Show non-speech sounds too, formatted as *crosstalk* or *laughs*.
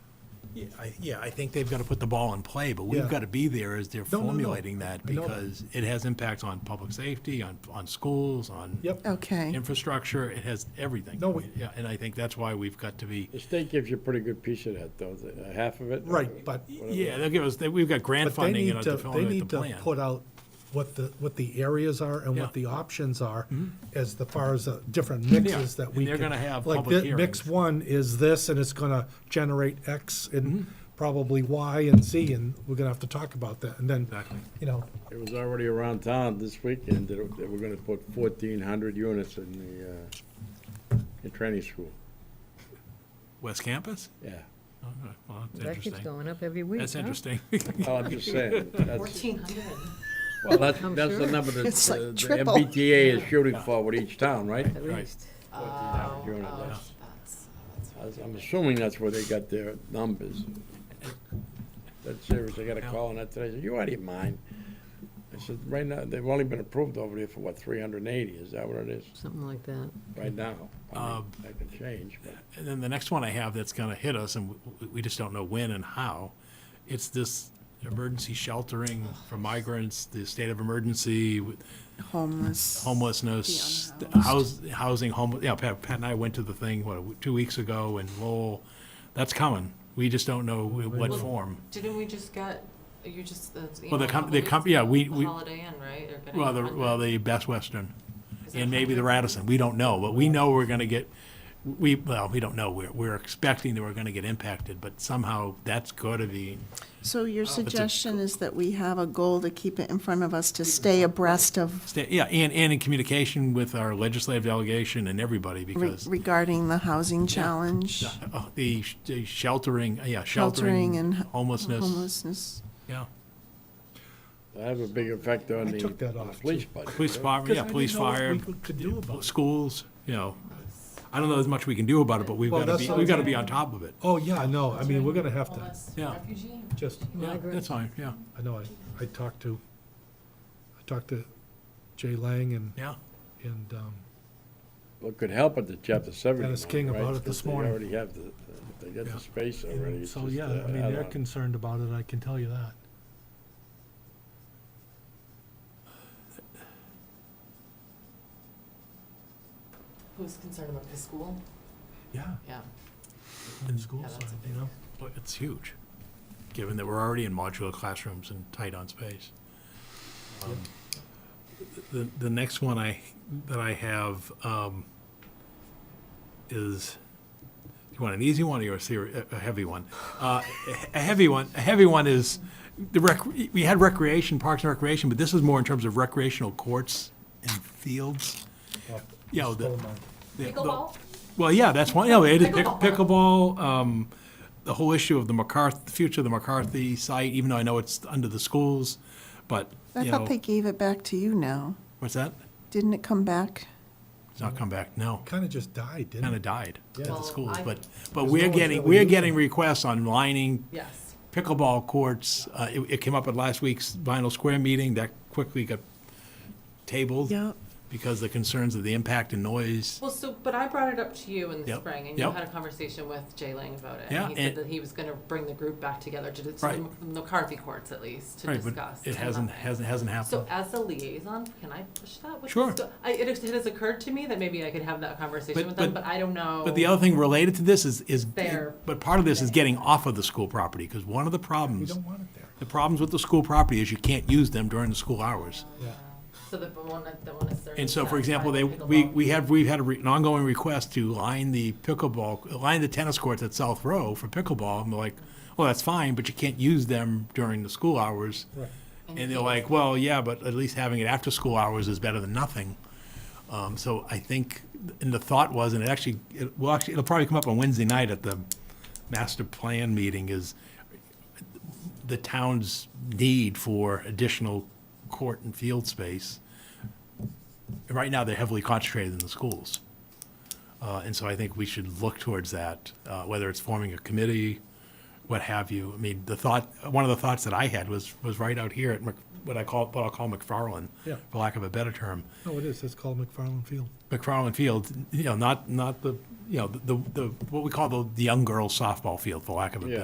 Yeah, I- Yeah, I think they've got to put the ball in play, but we've Yeah. got to be there as they're No, no, no. formulating that, I know that. because it has impacts on public safety, on, on schools, on Yep. Oh. Okay, infrastructure, it has everything. No, we- Yeah, and I think that's why we've got to be, The state gives you a pretty good piece of that, though, the- uh, half of it. Right, but, yeah, they'll give us, they- we've got grant but they funding in need our to, they development need of the to plan. put out what the, what the areas are Yeah. and Mm-hmm. what the options are as the far as the different mixes that and we they're can. gonna have like public thi- Mix hearings. one is this, and it's gonna generate X and Mm-hmm. probably Y and Z, and we're gonna have to talk about that, and then, Exactly. you know, It was already around town this weekend that it- that we're gonna put fourteen hundred units in the, uh, in training school, West Campus? yeah. Oh, no, Well, that's That keeps interesting. going up every week, That's huh? interesting. *laughs* Well, Oh, I'm *laughs* just saying, that's, Fourteen hundred. well, that's, I'm that's the sure. number that It's like uh, the triple. MBTA is shooting for with each town, right? At Right. least. Unit, yeah. That's, that's. I was- I'm assuming that's where they got their numbers. That's serious, I got a call on that today, I said, you out of your mind? I said, right now, they've only been approved over there for what, three hundred and eighty, is that what it is, Something like that. right now? I mean, That can change, but. And then the next one I have that's going to hit us, and we- we just don't know when and how, it's this emergency sheltering for migrants, the state of emergency, with homeless. homelessness, The house, housing, home, yeah, Pat, Pat and I went to the thing, what, two weeks ago in Lowell. That's coming. We just don't know in what form. Didn't we just get, you just, that's. Well, the com- the com- yeah, we- we- Holiday Inn, right? They're getting Well, the, 100. well, the Best Western, Is it and maybe the 100? Radisson, we don't know, but we know we're gonna get, we, well, we don't know, we're, we're expecting that we're gonna get impacted, but somehow that's gotta be, So your suggestion is that we have a goal to keep it in front of us to stay abreast of sta- yeah, and, and in communication with our legislative delegation and everybody, re- because regarding the housing challenge, uh, the sh- the sheltering, yeah, sheltering sheltering, and homelessness, homelessness. yeah. I have a big effect on I the, took that on the off, police too. budget. Police right? department, Oh, yeah, police fire, Could do about it. schools, you know. I don't know as much we can do about it, but we've Well, gotta be, that's- we've gotta be on top of it. Oh, yeah, no, I mean, we're gonna have to, Homeless Yeah. Refugee. just, Yeah, Migrant. that's fine, yeah, I know, I, I talked to, I talked to Jay Lang and, yeah. and, um, What could help at the chapter seventy. Dennis now, King right? about it Because this morning. They already have the, if they got Yeah. the space And already. it's So, just, yeah, uh, I mean, they're add-on. concerned about it, I can tell you that. Who's concerned about the school? Yeah, Yeah. in school Yeah, that's side, a you know? Well, it's huge, given that we're already in modular classrooms and tight on space. Um, The, the next one I, that I have um, is, you want an easy one or a seri- a- a heavy one? Uh, A a heavy one, a heavy one is, the rec, we had recreation, parks and recreation, but this is more in terms of recreational courts and fields. Yeah, the- the- the- Pickleball? well, yeah, that's one, yeah, it is pick- Pickleball. pickleball, um, the whole issue of the McCarthy, the future of the McCarthy site, even though I know it's under the schools, but, I you thought they know, gave it back to you now. what's that? Didn't it come back? It's not come back, uh, no, Kind of just died, didn't kinda it? died at Well, the schools, I- but, but There's we're no one's getting, really we're using getting it. requests on lining Yes. pickleball courts. Uh, it, it came up at last week's Vinyl Square meeting, that quickly got tabled Yep. because the concerns of the impact and noise. Well, so, but I brought it up to you in the Yep, spring, and you yep. had a conversation with Jay Lang about it. Yeah, And he said and- that he was gonna bring the group back together to, to Right. the McCarthy courts at least, to Right, but discuss. It and hasn't, nothing. hasn't, hasn't happened. So as a liaison, can I push that? with- Sure. so I, it it has occurred to me that maybe I could have that conversation But- with them, but- but I don't know. But the other thing related to this is, is, Fair. but part of this is getting off of the school property, because one of the We problems, don't want it there. the problems with the school property is you can't use them during the school hours. Yeah. So the one, that- the one is. And so, for certainly example, they, satisfied with we, pickleball. we have, we've had a re- an ongoing request to line the pickleball, line the tennis courts at South Row for pickleball, and they're like, well, that's fine, but you can't use them during the school hours. Right. And they're like, well, yeah, but at least having it after school hours is better than nothing. Um, so I think, and the thought was, and it actually, it, well, actually, it'll probably come up on Wednesday night at the master plan meeting is the town's need for additional court and field space. Right now, they're heavily concentrated in the schools. Uh, and so I think we should look towards that, uh, whether it's forming a committee, what have you. I mean, the thought, one of the thoughts that I had was, was right out here at Mc, what I call, what I'll call McFarland, Yeah. for lack of a better term. No, it is, it's called McFarland Field. McFarland Field, you know, not, not the, you know, the, the, what we call the, the young girls softball field, for lack of a Yeah. better